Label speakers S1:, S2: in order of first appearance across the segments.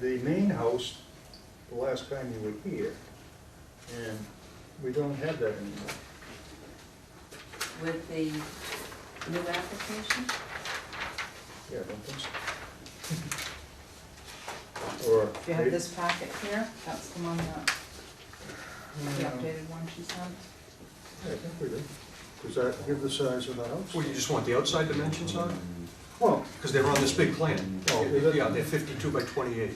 S1: the main house the last time you were here, and we don't have that anymore.
S2: with the new application?
S1: Yeah, I don't think so. Or.
S2: If you have this packet here, that's the one that, the
S1: Yeah,
S2: updated one she sent.
S1: I think we do. Does that give the size of the house?
S3: Well, you just want the outside dimensions on it?
S1: Well,
S3: Because they're on this big plan.
S1: Oh, is it?
S3: Yeah, they're fifty-two by twenty-eight,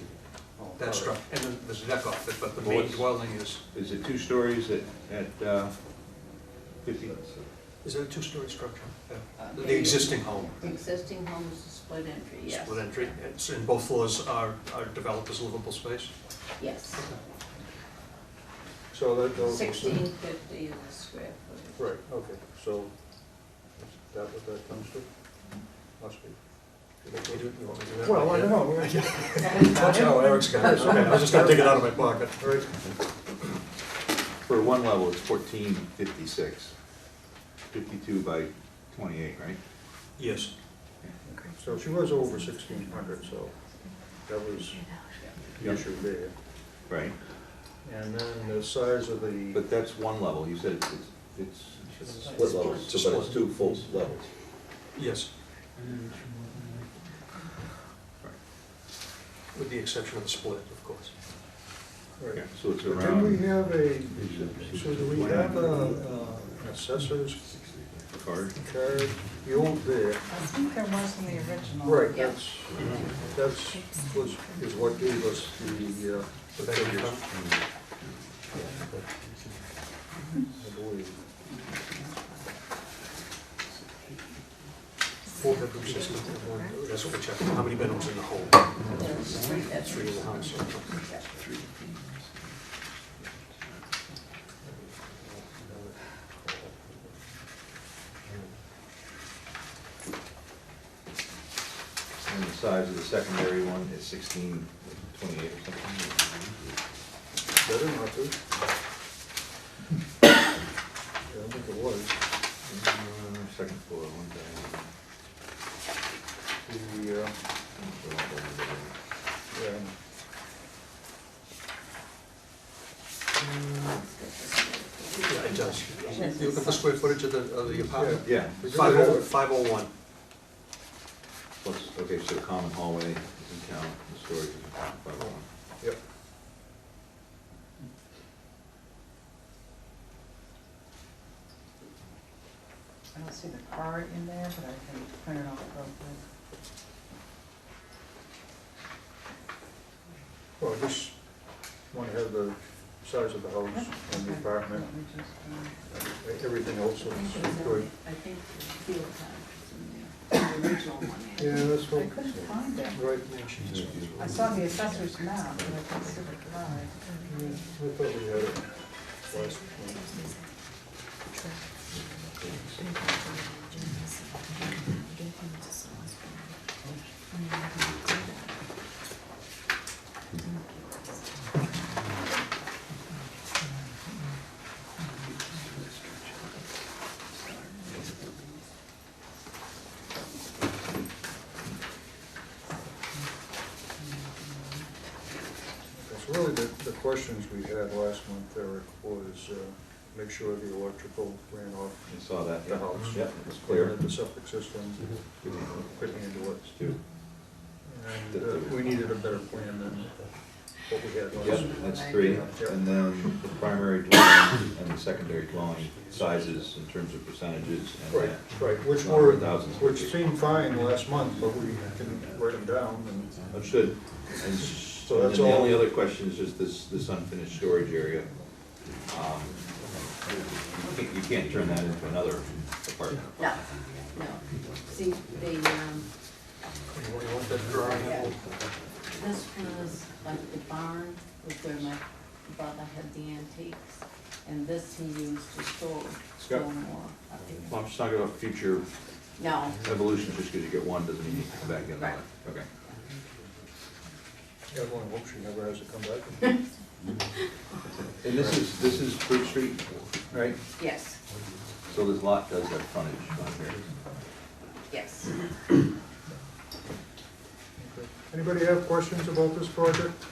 S1: oh,
S3: that
S1: all right.
S3: structure, and then there's a deck off it, but the main
S4: Boards.
S3: dwelling is,
S4: Is it two stories at, at uh, fifty?
S3: is it a two-story structure? Yeah.
S2: Uh,
S3: The existing home,
S5: The existing home is a split entry, yes.
S3: split entry, it's, and both floors are, are developed as livable space?
S5: Yes.
S1: So that goes.
S5: Sixteen fifty is the square footage.
S1: Right, okay, so is that what that comes to? Must be.
S3: You do- you want me to do that?
S1: Well, I don't know. We're-
S3: That's how Eric's got it, okay, I was just gonna take it out of my pocket.
S1: All right,
S4: For one level, it's fourteen fifty-six. Fifty-two by twenty-eight, right?
S3: Yes,
S1: so she was over sixteen hundred, so that was the
S4: Yep.
S1: issue there.
S4: Right,
S1: And then the size of the,
S4: but that's one level, you said it's, it's, it's
S2: It's
S4: split levels, so but it's two full levels.
S3: yes. With the exception of the split, of course.
S1: right.
S4: So it's
S1: But do we
S4: around.
S1: have a, so do we have a uh, assessor's
S4: Card.
S1: card? The old there,
S2: I think there was in the original.
S1: right,
S5: Yeah.
S1: that's, that's, was, is what gave us the, uh,
S3: The back of your-
S1: I believe.
S3: Four bedrooms, yes, one- that's what we checked, how many bedrooms in the whole?
S5: There's three
S3: Three in
S5: bedrooms.
S3: the house.
S4: And the size of the secondary one is sixteen twenty-eight or something.
S1: Better not to. Yeah, I think it was.
S4: Uh, Second floor, one down.
S1: The, uh,
S3: Yeah, it does. You look at the square footage of the, of the apartment?
S4: Yeah,
S3: Five oh, five oh one.
S4: plus, okay, so common hallway is in town, the storage is in town, five oh one.
S1: yeah, yep.
S2: I don't see the card in there, but I can print it off real quick.
S1: Well, I just want to have the size of the house and the apartment,
S2: Let me just,
S1: everything else
S5: I think
S1: is
S5: it's
S1: good.
S5: on- I think the field time is in there, the original one.
S1: Yeah, that's
S2: uh,
S1: what,
S2: I couldn't find it.
S1: right,
S2: I saw the assessor's map, but I couldn't see the card.
S1: yeah, I thought we had it last one. That's really the, the questions we had last month, Eric, was, uh, make sure the electrical ran off
S4: You saw that?
S1: the house.
S4: Yeah, it was
S1: clear,
S4: clear. Mm-hmm.
S1: the septic system, putting into it.
S4: Two.
S1: And uh, we needed a better plan than what we had
S4: Yep,
S1: last.
S4: that's three, and then the primary dwelling and the secondary dwelling sizes in terms of percentages and
S1: Right,
S4: that.
S1: right, which were,
S4: 100,000 square
S1: which
S4: feet.
S1: seemed fine last month, but we can write them down and,
S4: Understood. And s-
S1: So
S4: and then
S1: that's
S4: the
S1: all-
S4: only other question is just this, this unfinished storage area. Um, You can't- you can't turn that into another apartment.
S5: No, no. See, the, um,
S3: You want- you want that drawing?
S5: Yeah. This was like the barn, was where my brother had the antiques, and this he used to store, store
S4: Scott.
S5: more. I think.
S4: Well, I'm just talking about future
S5: No,
S4: evolution, just because you get one doesn't mean you come back and get
S5: Right.
S4: another. Okay.
S1: everyone hopes she never has to come back.
S4: And this is, this is Fruit Street, right?
S5: yes,
S4: So this lot does have frontage on here.
S5: yes.
S1: Anybody have questions about this project?